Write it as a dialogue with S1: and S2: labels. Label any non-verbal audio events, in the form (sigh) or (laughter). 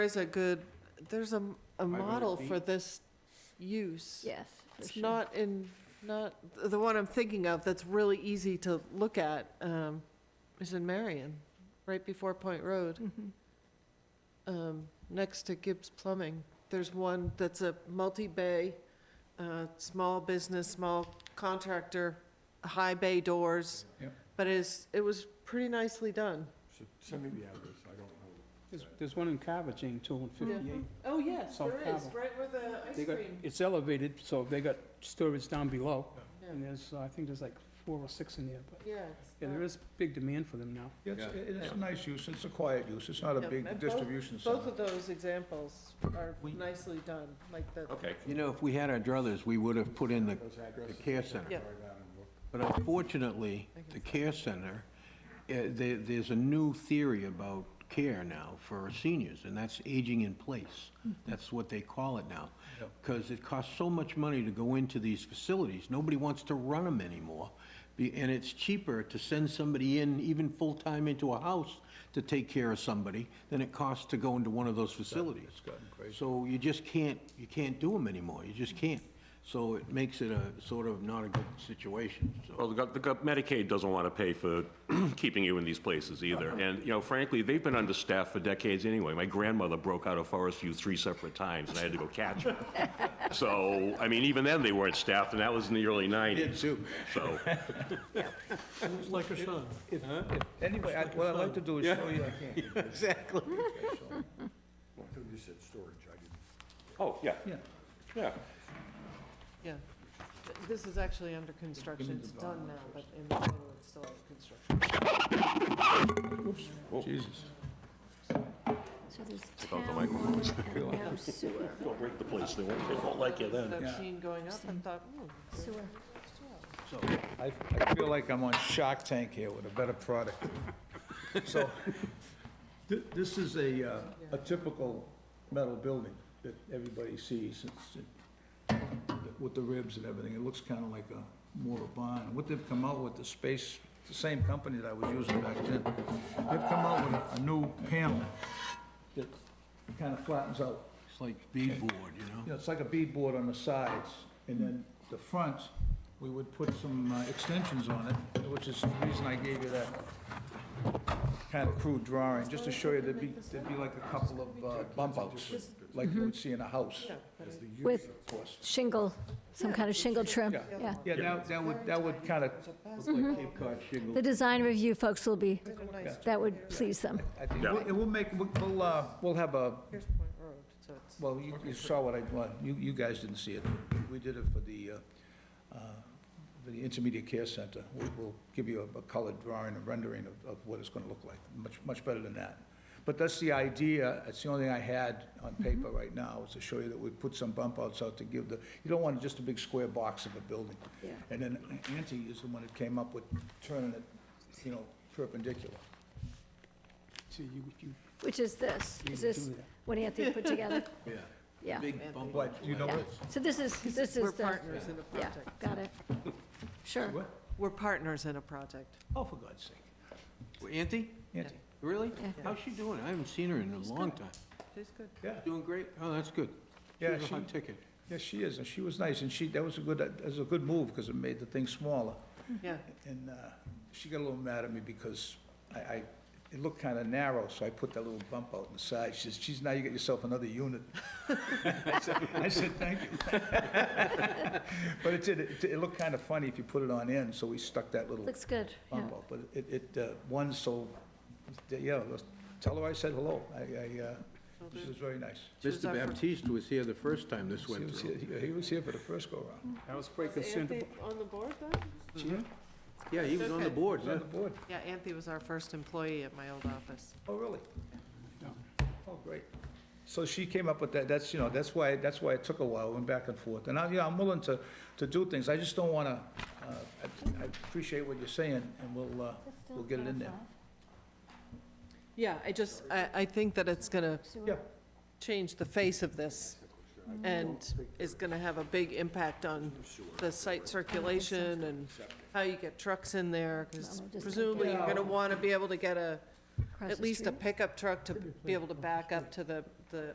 S1: There's a good, there's a, a model for
S2: feet?
S1: this use.
S3: Yes, for
S1: It's
S3: sure.
S1: not in, not, the one I'm thinking of that's really easy to look at, um, is in Marion, right before Point Road,
S3: Mhm.
S1: um, next to Gibbs Plumbing. There's one that's a multi-bay, uh, small business, small contractor, high bay doors.
S2: Yep.
S1: But it's, it was pretty nicely done.
S2: Should Send me the address, I don't know.
S4: There's, there's one in Carvajal too, in fifty-eight.
S1: Oh, yes,
S4: South
S1: there is,
S4: Carmel.
S1: right where the ice
S4: They got,
S1: cream.
S4: it's elevated, so they got storage down below,
S1: Yeah.
S4: and there's, uh, I think there's like four or six in there, but,
S1: Yeah. it's
S4: yeah,
S1: not-
S4: there is big demand for them now.
S2: It's, it's a nice use, it's a quiet use, it's not a
S1: Yeah,
S2: big
S1: and both-
S2: distribution
S1: Both
S2: center.
S1: of those examples are
S5: We-
S1: nicely done, like the,
S5: Okay.
S6: You know, if we had our druthers, we would have put in the,
S2: Those addresses,
S6: the care center.
S1: Yeah.
S2: drive out and look.
S6: But unfortunately, the care center, eh, there, there's a new theory about care now for seniors, and that's aging in place. That's what they call it now. Because it costs so much money to go into these facilities, nobody wants to run them anymore. Be- And it's cheaper to send somebody in, even full-time into a house, to take care of somebody than it costs to go into one of those facilities.
S2: It's gotten crazy.
S6: So you just can't, you can't do them anymore, you just can't. So it makes it a sort of not a good situation, so.
S5: Well, the gov- the gov- Medicaid doesn't want to pay for (clears throat) keeping you in these places either. And, you know, frankly, they've been understaffed for decades anyway. My grandmother broke out of Forest View three separate times, and I had to go catch her. So, I mean, even then, they weren't staffed, and that was in the early 90s. So,
S2: Anyway, I- what I'd like to do is show you, I can't. (laughs) Exactly. You said storage, I didn't.
S5: oh, yeah,
S2: Yeah,
S5: yeah.
S1: yeah. Th- This is actually under construction, it's done now, but in the middle, it's still under construction.
S2: Jesus.
S3: So there's
S5: out the
S3: town water and now sewer,
S5: Don't break the place, they won't, they won't like you then.
S1: That I've
S2: Yeah.
S1: seen going up and thought, hmm, ooh. there's
S3: sewer.
S2: I, I feel like I'm on Shark Tank here with a better product. So, thi- this is a, uh, a typical metal building that everybody sees, It's- it- with the ribs and everything, it looks kinda like a mortar barn. What they've come out with, the space, the same company that I was using back then, they've come out with a- a new panel that kinda flattens out.
S6: It's like beadboard, you know?
S2: You know, it's like a beadboard on the sides, and then the front, we would put some uh, extensions on it, which is the reason I gave you that kind of crude drawing, just to show you there'd be, there'd be like a couple of uh, bump outs, like you would see in a house.
S3: With shingle, some kind of shingle trim,
S2: Yeah.
S3: yeah.
S2: Yeah, that, that would, that would kind of,
S1: a basket,
S6: Cape Cod shingle.
S3: The design review folks will be,
S1: there's a nice-
S3: that would please them.
S2: I think,
S5: Yeah.
S2: it will make, we'll, uh, we'll have a,
S1: Here's Point Road, so it's.
S2: well, you, you saw what I, well, you, you guys didn't see it. We did it for the, uh, uh, for the intermediate care center. We- We'll give you a- a colored drawing, a rendering of, of what it's gonna look like, much, much better than that. But that's the idea, it's the only thing I had on
S3: Mm-hmm.
S2: paper right now, is to show you that we put some bump outs out to give the, you don't want just a big square box of a building.
S3: Yeah.
S2: And then Ante is the one that came up with turning it, you know, perpendicular.
S4: See, you, you,
S3: Which is this, is this what Anthony put together?
S6: Yeah.
S3: Yeah,
S6: Big bump.
S2: But you know
S3: yeah.
S2: what?
S3: So this is, this
S1: We're
S3: is the,
S1: partners in a
S3: yeah,
S1: project.
S3: got it. Sure.
S2: What?
S1: We're partners in a project.
S2: Oh, for God's sake.
S6: Auntie?
S2: Ante,
S6: Really?
S3: Yeah.
S6: How's she doing? I haven't seen her in a long time.
S1: Tastes good.
S2: yeah.
S6: Doing great? Oh, that's good.
S2: Yeah,
S6: She's a
S2: she-
S6: hot ticket.
S2: Yes, she is, and she was nice, and she, that was a good, that was a good move, because it made the thing smaller.
S1: Yeah,
S2: And uh, she got a little mad at me because I, I, it looked kind of narrow, so I put that little bump out in the side. She says, geez, now you got yourself another unit. (laughs) I said- I said, thank you. (laughs) But it did, it, it looked kind of funny if you put it on end, so we stuck that little
S3: Looks good, yeah.
S2: bump out. But it, it, uh, one, so, yeah, let's- tell her I said hello. I, I, uh, she was very nice.
S1: She was
S6: Mr.
S1: our fir-
S6: Baptiste was here the first time this
S2: He
S6: went
S2: was
S6: through.
S2: here, he was here for the first go-around.
S4: I was quite
S1: Is
S4: concerned
S1: Anthony
S4: about,
S1: on the board then?
S6: Yeah, he was on the
S1: Okay.
S6: board,
S2: He was
S6: yeah.
S2: on the board.
S1: Yeah, Anthony was our first employee at my old office.
S2: Oh, really? Oh, great. So she came up with that, that's, you know, that's why, that's why it took a while, went back and forth. And I, you know, I'm willing to, to do things, I just don't wanna, uh, I I appreciate what you're saying, and we'll, uh, we'll get it in there.
S1: Yeah, I just, I, I think that it's gonna
S2: Yeah,
S1: change the face of this and is going to have a big impact on the site circulation and how you get trucks in there, because presumably you're going to want to be able to get a, at least a pickup truck to be able to back up to the